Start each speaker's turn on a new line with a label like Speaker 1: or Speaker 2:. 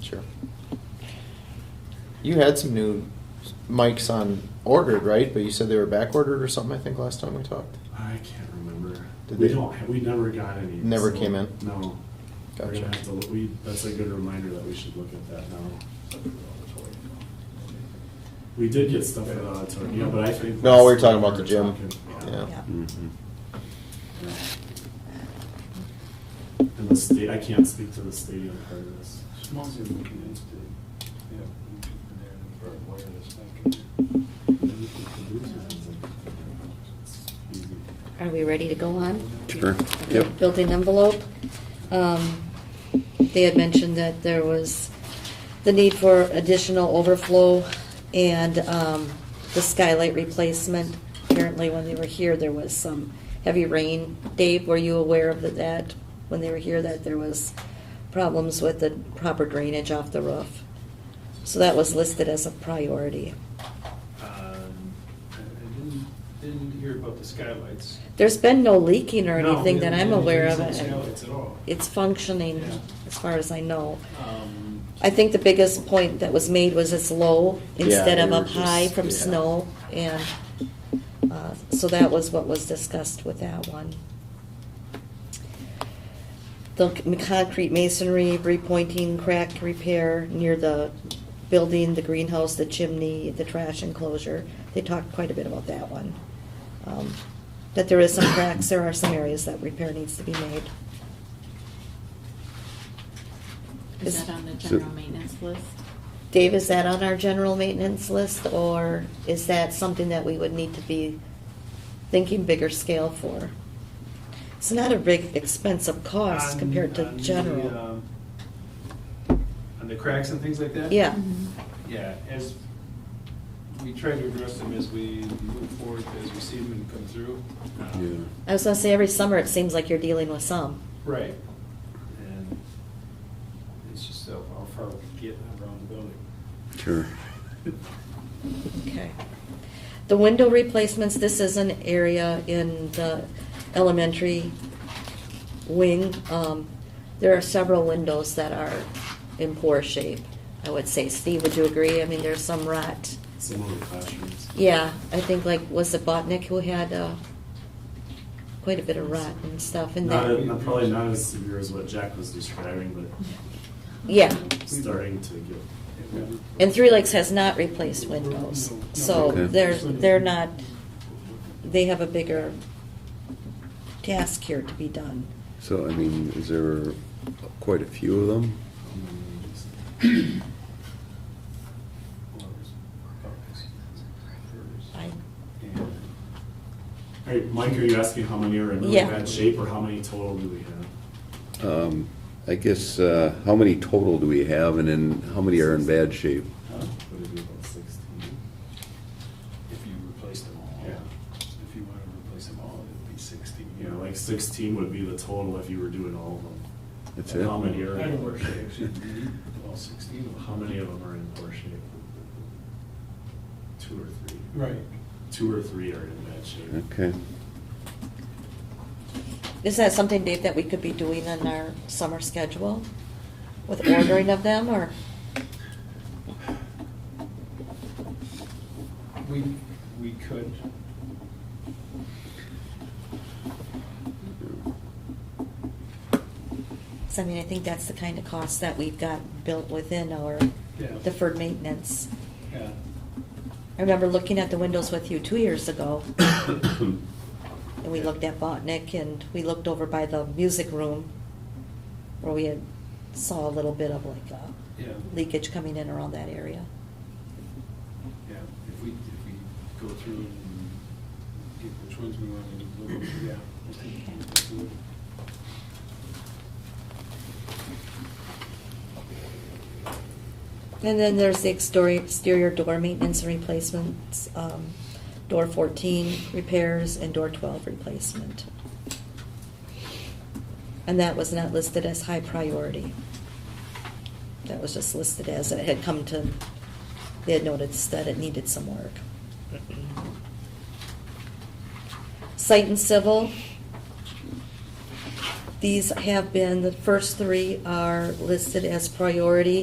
Speaker 1: Sure. You had some new mics on ordered, right? But you said they were back ordered or something, I think, last time we talked.
Speaker 2: I can't remember.
Speaker 1: Did
Speaker 2: we
Speaker 1: they-
Speaker 2: don't. ha- We never got any.
Speaker 1: Never came in?
Speaker 2: No. We're gonna
Speaker 1: Gotcha.
Speaker 2: have to look- we- that's a good reminder that we should look at that now. We did get stuff for the auditorium, yeah, but I think.
Speaker 1: No, we were talking about the gym.
Speaker 2: talking-
Speaker 1: Yeah.
Speaker 3: Yeah.
Speaker 2: Yeah. And the state, I can't speak to the stadium part of this.
Speaker 4: Mostly looking into, yeah, there, and wireless back
Speaker 5: Are we ready to go on?
Speaker 6: Sure.
Speaker 5: Okay,
Speaker 6: Yep.
Speaker 5: Building envelope. Um, They had mentioned that there was the need for additional overflow and um, the skylight replacement. Apparently, when they were here, there was some heavy rain. Dave, were you aware of that, when they were here, that there was problems with the proper drainage off the roof? So that was listed as a priority.
Speaker 4: Um, I I didn't, didn't hear about the skylights.
Speaker 5: There's been no leaking or
Speaker 4: No,
Speaker 5: anything that
Speaker 4: we
Speaker 5: I'm
Speaker 4: haven't
Speaker 5: aware of.
Speaker 4: done Skylights at all.
Speaker 5: It's functioning,
Speaker 4: Yeah.
Speaker 5: as far as I know.
Speaker 4: Um,
Speaker 5: I think the biggest point that was made was it's low
Speaker 1: Yeah,
Speaker 5: instead of
Speaker 1: they were
Speaker 5: up high
Speaker 1: just-
Speaker 5: from
Speaker 1: yeah.
Speaker 5: snow, and, uh, so that was what was discussed with that one. The c- concrete masonry, repointing, crack repair near the building, the greenhouse, the chimney, the trash enclosure, they talked quite a bit about that one. Um, That there is some cracks, there are some areas that repair needs to be made.
Speaker 7: Is that on the general maintenance list?
Speaker 5: Dave, is that on our general maintenance list, or is that something that we would need to be thinking bigger scale for? It's not a big expensive cost
Speaker 4: on-
Speaker 5: compared to
Speaker 4: on Um, uh, the,
Speaker 5: general.
Speaker 4: um, On the cracks and things like that?
Speaker 5: Yeah,
Speaker 4: Yeah, as, we try to address them as we move forward, as we see them and come through. Uh,
Speaker 6: Yeah.
Speaker 5: I was gonna say, every summer it seems like you're dealing with some.
Speaker 4: Right. And it's just how how far we can get around the building.
Speaker 6: Sure.
Speaker 5: Okay. The window replacements, this is an area in the elementary wing. Um, There are several windows that are in poor shape, I would say. Steve, would you agree? I mean, there's some rot.
Speaker 2: Some of the classrooms.
Speaker 5: Yeah, I think like, was it Botnick who had uh, quite a bit of rot and stuff in
Speaker 2: Not,
Speaker 5: there?
Speaker 2: a- not- probably not as severe as what Jack was describing, but
Speaker 5: Yeah,
Speaker 2: starting to get.
Speaker 5: and Three Lakes has not replaced windows, so
Speaker 6: Okay.
Speaker 5: they're, they're not, they have a bigger task here to be done.
Speaker 6: So, I mean, is there quite a few of them?
Speaker 5: I-
Speaker 2: All right, Mike, are you asking how many are in really
Speaker 5: Yeah.
Speaker 2: bad shape or how many total do we have?
Speaker 6: Um, I guess, uh, how many total do we have and then how many are in bad shape?
Speaker 2: Would it be about sixteen?
Speaker 4: If you replace them all.
Speaker 2: Yeah.
Speaker 4: If you want to replace them all, it'd be sixteen.
Speaker 2: You know, like sixteen would be the total if you were doing all of them.
Speaker 6: That's
Speaker 2: And
Speaker 6: it?
Speaker 2: How many are,
Speaker 4: I don't work
Speaker 2: how
Speaker 4: shifts, you need all sixteen of them.
Speaker 2: many of them are in poor shape? Two or three?
Speaker 4: Right.
Speaker 2: Two or three are in bad shape.
Speaker 6: Okay.
Speaker 5: Is that something, Dave, that we could be doing in our summer schedule with ordering of them, or?
Speaker 4: We, we could,
Speaker 5: So I mean, I think that's the kind of cost that we've got built within our
Speaker 4: yeah.
Speaker 5: deferred maintenance.
Speaker 4: Yeah.
Speaker 5: I remember looking at the windows with you two years ago, and we looked at Botnick, and we looked over by the music room, where we had saw a little bit of like uh,
Speaker 4: Yeah.
Speaker 5: leakage coming in around that area.
Speaker 4: Yeah, if we, if we go through and get which ones we want to look at, yeah. I think we'll go through it.
Speaker 5: And then there's the exterior, exterior door maintenance and replacements, um, door fourteen repairs and door twelve replacement. And that was not listed as high priority. That was just listed as it had come to, they had noticed that it needed some work. Site and civil. These have been, the first three are listed as priority